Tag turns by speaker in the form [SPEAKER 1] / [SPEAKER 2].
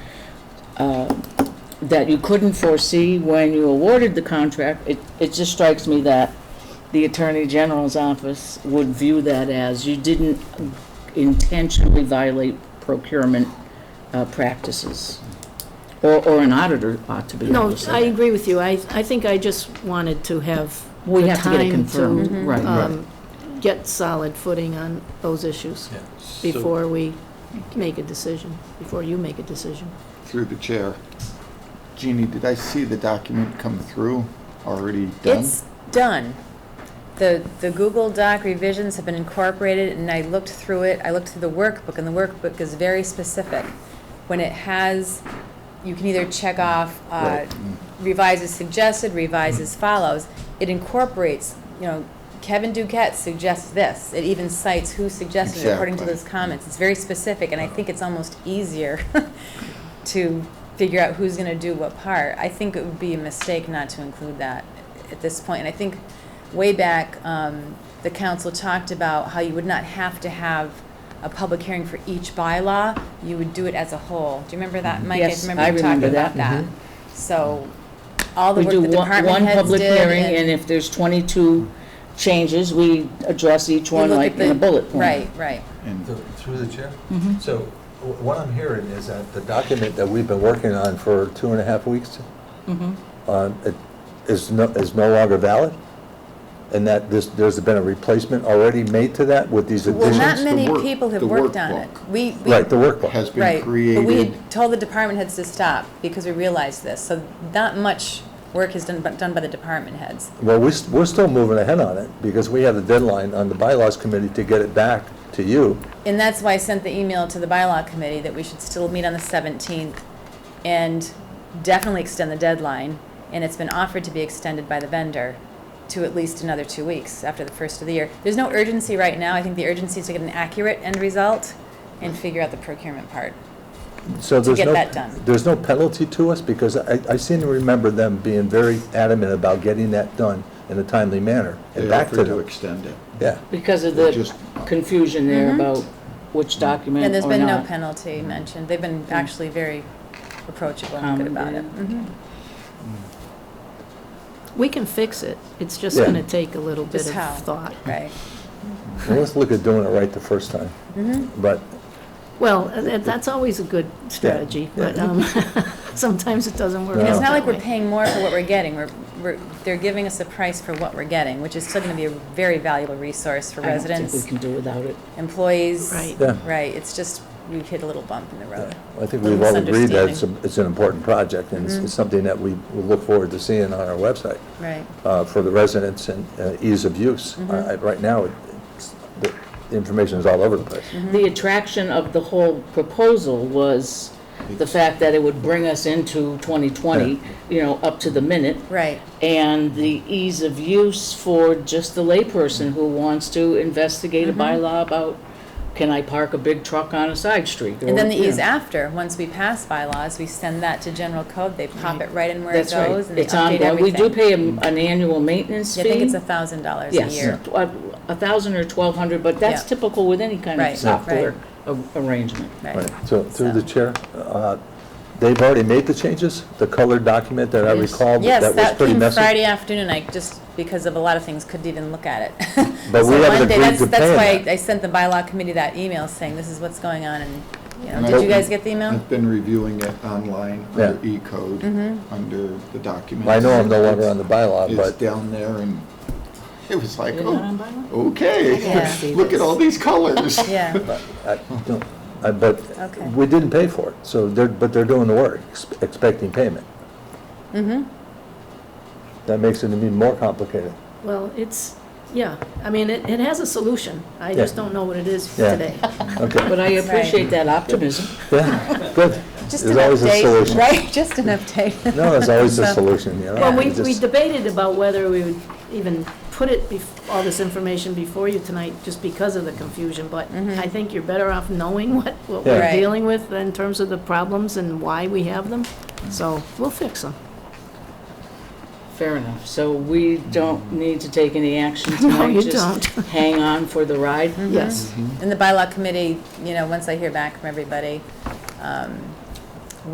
[SPEAKER 1] uh, that you couldn't foresee when you awarded the contract, it, it just strikes me that the Attorney General's office would view that as you didn't intentionally violate procurement uh, practices. Or, or an auditor ought to be able
[SPEAKER 2] No,
[SPEAKER 1] to
[SPEAKER 2] I
[SPEAKER 1] say that.
[SPEAKER 2] agree with you. I, I think I just wanted to have
[SPEAKER 1] We
[SPEAKER 2] the
[SPEAKER 1] have to get it
[SPEAKER 2] time to,
[SPEAKER 1] confirmed,
[SPEAKER 3] mm-hmm.
[SPEAKER 1] right, right.
[SPEAKER 2] um, get solid footing on those issues
[SPEAKER 4] Yeah. So-
[SPEAKER 2] before we make a decision, before you make a decision.
[SPEAKER 5] Through the chair. Jeannie, did I see the document come through already done?
[SPEAKER 3] It's done. The, the Google Doc revisions have been incorporated, and I looked through it, I looked through the workbook, and the workbook is very specific. When it has, you can either check off uh,
[SPEAKER 5] Right. Mm.
[SPEAKER 3] revise as suggested, revise as follows. It incorporates, you know, Kevin Duquette suggests this. It even cites who suggested it according to
[SPEAKER 5] Exactly.
[SPEAKER 3] those comments. It's very specific, and I think it's almost easier to figure out who's going to do what part. I think it would be a mistake not to include that at this point. And I think way back, um, the council talked about how you would not have to have a public hearing for each bylaw. You would do it as a whole. Do you remember that, Mike?
[SPEAKER 1] Yes, I
[SPEAKER 3] you
[SPEAKER 1] remember
[SPEAKER 3] talking about
[SPEAKER 1] that. Mm-hmm.
[SPEAKER 3] that. So all the
[SPEAKER 1] We
[SPEAKER 3] work
[SPEAKER 1] do
[SPEAKER 3] the
[SPEAKER 1] one,
[SPEAKER 3] department
[SPEAKER 1] one
[SPEAKER 3] heads
[SPEAKER 1] public
[SPEAKER 3] did
[SPEAKER 1] hearing, and if there's 22 changes, we address each
[SPEAKER 3] you
[SPEAKER 1] one
[SPEAKER 3] look
[SPEAKER 1] like
[SPEAKER 3] at the-
[SPEAKER 1] in a bullet point.
[SPEAKER 3] Right, right.
[SPEAKER 5] And
[SPEAKER 4] Th- Through the chair?
[SPEAKER 3] Mm-hmm.
[SPEAKER 4] So wh- what I'm hearing is that the document that we've been working on for two and a half weeks
[SPEAKER 3] Mm-hmm.
[SPEAKER 4] um, it is no, is no longer valid? And that this, there's been a replacement already made to that with these
[SPEAKER 3] Well,
[SPEAKER 4] additions?
[SPEAKER 3] not
[SPEAKER 5] the
[SPEAKER 3] many
[SPEAKER 5] work-
[SPEAKER 3] people have
[SPEAKER 5] the
[SPEAKER 3] worked on it.
[SPEAKER 5] workbook.
[SPEAKER 3] We, we.
[SPEAKER 4] Right, the workbook.
[SPEAKER 5] has been
[SPEAKER 3] Right, but we
[SPEAKER 5] created,
[SPEAKER 3] had told the department heads to stop because we realized this. So not much work is done, but done by the department heads.
[SPEAKER 4] Well, we, s- we're still moving ahead on it because we have the deadline on the bylaws committee to get it back to you.
[SPEAKER 3] And that's why I sent the email to the bylaw committee that we should still meet on the 17th and definitely extend the deadline. And it's been offered to be extended by the vendor to at least another two weeks after the first of the year. There's no urgency right now. I think the urgency is to get an accurate end result and figure out the procurement part.
[SPEAKER 4] So there's
[SPEAKER 3] get
[SPEAKER 4] no-
[SPEAKER 3] that done.
[SPEAKER 4] There's no penalty to us because I, I seem to remember them being very adamant about getting that done in a timely manner and
[SPEAKER 5] they
[SPEAKER 4] back to
[SPEAKER 5] offered to
[SPEAKER 4] them.
[SPEAKER 5] extend it.
[SPEAKER 4] Yeah.
[SPEAKER 1] Because of
[SPEAKER 5] They
[SPEAKER 1] the
[SPEAKER 5] just-
[SPEAKER 1] confusion there about which document or
[SPEAKER 3] And
[SPEAKER 1] not. Hmm.
[SPEAKER 3] there's been no penalty mentioned. They've been actually very approachable
[SPEAKER 1] Um,
[SPEAKER 3] and good about it. Mm-hmm.
[SPEAKER 2] We can fix it. It's just
[SPEAKER 4] Yeah.
[SPEAKER 2] going to take a little bit
[SPEAKER 3] Just
[SPEAKER 2] of
[SPEAKER 3] how?
[SPEAKER 2] thought.
[SPEAKER 3] Right.
[SPEAKER 4] Well, let's look at doing it right the first time.
[SPEAKER 3] Mm-hmm.
[SPEAKER 4] But,
[SPEAKER 2] Well, uh, that- that's always a good strategy, but um, sometimes it doesn't work
[SPEAKER 4] No.
[SPEAKER 2] out
[SPEAKER 1] Oh.
[SPEAKER 3] It's not
[SPEAKER 2] that
[SPEAKER 3] like we're
[SPEAKER 2] way.
[SPEAKER 3] paying more for what we're getting, we're, we're, they're giving us a price for what we're getting, which is still gonna be a very valuable resource for
[SPEAKER 1] I don't think we
[SPEAKER 3] residents,
[SPEAKER 1] can do without it.
[SPEAKER 3] employees.
[SPEAKER 2] Right.
[SPEAKER 4] Yeah.
[SPEAKER 3] Right, it's just, we've hit a little bump in the road.
[SPEAKER 4] I think we've all agreed that it's, a-
[SPEAKER 3] Misunderstanding. Mm-hmm.
[SPEAKER 4] it's an important project and it's- it's something that we will look forward to seeing on our website
[SPEAKER 3] Right.
[SPEAKER 4] uh, for the residents and uh, ease of use.
[SPEAKER 3] Mm-hmm.
[SPEAKER 4] I- I- Right now, it's- the information is all over the place.
[SPEAKER 3] Mm-hmm.
[SPEAKER 1] The attraction of the whole proposal was the fact that it would bring us into 2020, you know, up to the minute,
[SPEAKER 3] Right,
[SPEAKER 1] and the ease of use for just the layperson who wants to investigate
[SPEAKER 3] Mm-hmm.
[SPEAKER 1] a bylaw about, can I park a big truck on a side street?
[SPEAKER 3] and then the
[SPEAKER 1] Or, you
[SPEAKER 3] ease
[SPEAKER 1] know,
[SPEAKER 3] after, once we pass bylaws, we send that to general code, they pop it right in where it
[SPEAKER 1] That's right.
[SPEAKER 3] goes, and they
[SPEAKER 1] It's
[SPEAKER 3] update
[SPEAKER 1] ongoing. We
[SPEAKER 3] everything.
[SPEAKER 1] do pay an an annual maintenance fee.
[SPEAKER 3] I think it's a thousand dollars a
[SPEAKER 1] Yes,
[SPEAKER 3] year.
[SPEAKER 1] tw- a a thousand or twelve hundred, but that's
[SPEAKER 3] Yeah.
[SPEAKER 1] typical with any kind
[SPEAKER 3] Right,
[SPEAKER 1] of
[SPEAKER 3] right.
[SPEAKER 1] software a- arrangement.
[SPEAKER 3] Right.
[SPEAKER 4] So through the
[SPEAKER 3] So-
[SPEAKER 4] chair, uh, they've already made the changes, the colored document that I
[SPEAKER 1] Yes.
[SPEAKER 4] recall, that
[SPEAKER 3] Yes,
[SPEAKER 4] that was
[SPEAKER 3] that
[SPEAKER 4] pretty
[SPEAKER 3] came
[SPEAKER 4] messy.
[SPEAKER 3] Friday afternoon, I just, because of a lot of things, couldn't even look at it.
[SPEAKER 4] But we
[SPEAKER 3] So
[SPEAKER 4] haven't
[SPEAKER 3] Monday,
[SPEAKER 4] agreed
[SPEAKER 3] that's-
[SPEAKER 4] to pay
[SPEAKER 3] That's
[SPEAKER 4] that.
[SPEAKER 3] why I sent the bylaw committee that email saying, this is what's going on, and, you know,
[SPEAKER 5] And Mm.
[SPEAKER 3] did
[SPEAKER 5] I've
[SPEAKER 3] you
[SPEAKER 5] been-
[SPEAKER 3] guys get the email?
[SPEAKER 5] I've been reviewing it online
[SPEAKER 4] Yeah.
[SPEAKER 5] under E-code,
[SPEAKER 3] Mm-hmm.
[SPEAKER 5] under the documents.
[SPEAKER 4] I know I'm no longer on the bylaw,
[SPEAKER 5] It's
[SPEAKER 4] but
[SPEAKER 5] down there and it was like,
[SPEAKER 1] You're not on
[SPEAKER 5] oh,
[SPEAKER 1] bylaw?
[SPEAKER 3] Yeah.
[SPEAKER 5] okay, look at all these colors.
[SPEAKER 3] Yeah,
[SPEAKER 4] I don't, I- but
[SPEAKER 3] Okay.
[SPEAKER 4] we didn't pay for it, so they're, but they're doing the work, ex- expecting payment.
[SPEAKER 3] Mm-hmm.
[SPEAKER 4] That makes it even more complicated.
[SPEAKER 2] Well, it's, yeah, I mean, it, it has a solution. I just don't know what it is
[SPEAKER 4] Yeah.
[SPEAKER 2] today.
[SPEAKER 4] Okay,
[SPEAKER 1] But I
[SPEAKER 3] That's right.
[SPEAKER 1] appreciate that optimism.
[SPEAKER 4] yeah, good.
[SPEAKER 3] just an
[SPEAKER 4] There's always a
[SPEAKER 3] update,
[SPEAKER 4] solution.
[SPEAKER 3] right, just an update.
[SPEAKER 4] No, there's always a
[SPEAKER 3] So-
[SPEAKER 4] solution, you know?
[SPEAKER 2] Well, we,
[SPEAKER 4] It's
[SPEAKER 2] we
[SPEAKER 4] just-
[SPEAKER 2] debated about whether we would even put it, bef- all this information before you tonight, just because of the confusion, but I think you're better off knowing what, what
[SPEAKER 4] Yeah.
[SPEAKER 2] we're
[SPEAKER 3] Right.
[SPEAKER 2] dealing with in terms of the problems and why we have them, so we'll fix them.
[SPEAKER 1] Fair enough. So we don't need to take any action tonight?
[SPEAKER 2] you
[SPEAKER 1] Just
[SPEAKER 2] don't.
[SPEAKER 1] hang on for the ride?
[SPEAKER 2] Yes.
[SPEAKER 3] And the bylaw committee, you know, once I hear back from everybody, um,